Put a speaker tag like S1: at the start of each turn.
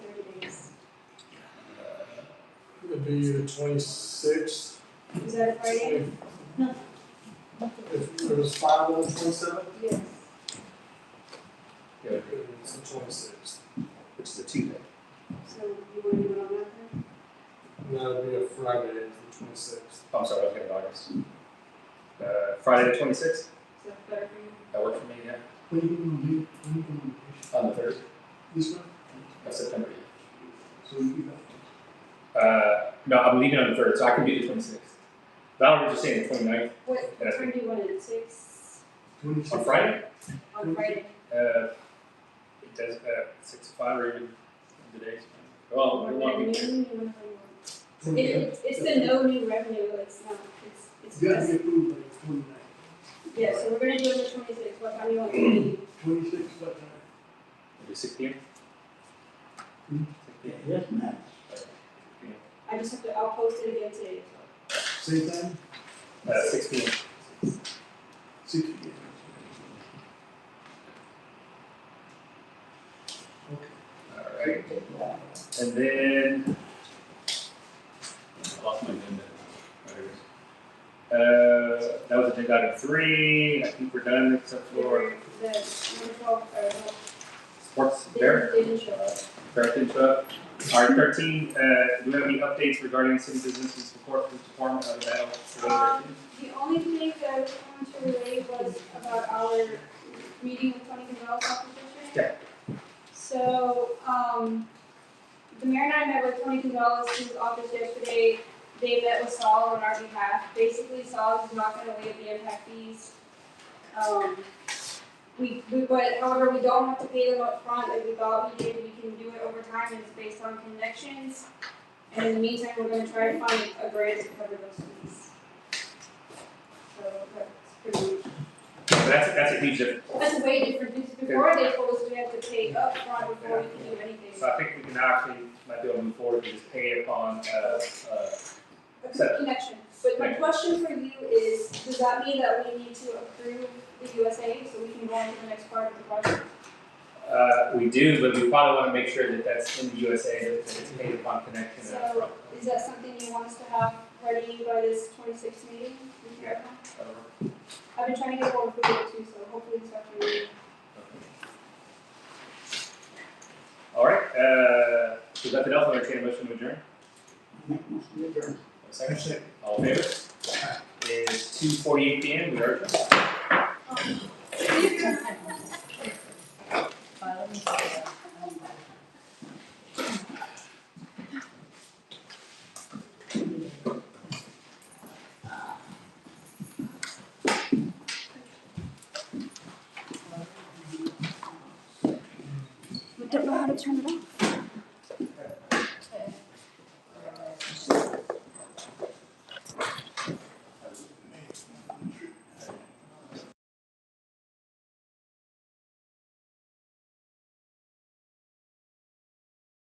S1: would be the twenty-sixth,
S2: Is that a Friday?
S1: twenty. If it was five on the twenty-seventh,
S2: Yes.
S1: it was the twenty-sixth.
S3: which is a Tuesday.
S2: So you want to do it on that then?
S1: And that would be a Friday, the twenty-sixth.
S3: Oh, I'm sorry, I was getting August. Uh, Friday the twenty-sixth,
S2: Is that better for you?
S3: that worked for me, yeah,
S4: When are you gonna leave, when are you gonna leave?
S3: on the third
S4: This one?
S3: of September.
S4: So you'll be back.
S3: Uh, no, I'm leaving on the third, so I can be the twenty-sixth. Valerie was just saying the twenty-ninth
S2: What, what
S3: That's
S2: time do you want it, at six
S4: Twenty-six.
S3: on Friday,
S2: on Friday?
S3: uh, it does, uh, six to five or even the days. Well,
S2: Or at
S3: we want to
S2: noon,
S3: be
S2: you want to
S4: Twenty-
S2: It, it's, it's the no new revenue, it's not, it's, it's
S4: You gotta
S2: just,
S4: be approved by the twenty-nine.
S2: yeah, so we're gonna do it on the twenty-sixth, what time do you want it to be?
S4: Twenty-six, what time?
S3: Maybe six P M?
S4: Hmm.
S3: Six P M.
S4: Yes, ma'am.
S2: I just have to, I'll post it again today.
S4: Same time,
S3: Uh, six P M.
S4: six P M. Okay.
S3: Alright, and then. I lost my agenda. Oh, here it is. Uh, that was agenda item three, I think we're done except for
S2: The wonderful, uh,
S3: sports
S2: they
S3: there,
S2: didn't show up.
S3: corrected stuff. Alright, thirteen, uh, do we have any updates regarding city business and support for department of that? for those
S2: Um,
S3: thirteen?
S2: The only thing that I was wanted to relay was about our meeting with Tony Gonzalez off the district.
S3: Yeah.
S2: So, um, the mayor and I met with Tony Gonzalez, whose office yesterday, they met with Saul on our behalf. Basically, Saul is not gonna waive the impact fees. Um, we, we, but however, we don't have to pay them up front like we thought we did, we can do it over time, and it's based on connections. And in the meantime, we're gonna try to find a grant to cover those fees. So that's pretty,
S3: So That's, that's a huge difference.
S2: that's a way different, because before they told us we had to pay upfront before we could do anything.
S3: So I think we can actually, might be able to move forward, and just pay upon, uh, uh,
S2: A good connection, but my question for you is, does that mean that we need to approve the USA so we can go on to the next part of the project?
S3: Uh, we do, but we probably want to make sure that that's in the USA, that that it's paid upon connection.
S2: So is that something you want us to have ready by this twenty-sixth meeting?
S3: Yeah.
S2: I've been trying to get hold of it too, so hopefully this afternoon.
S3: All right, uh, if there's nothing else, I'll entertain a motion to adjourn. A Second, all in favor? It is two forty-eight P M, we are adjourned.
S2: We don't know how to turn it off.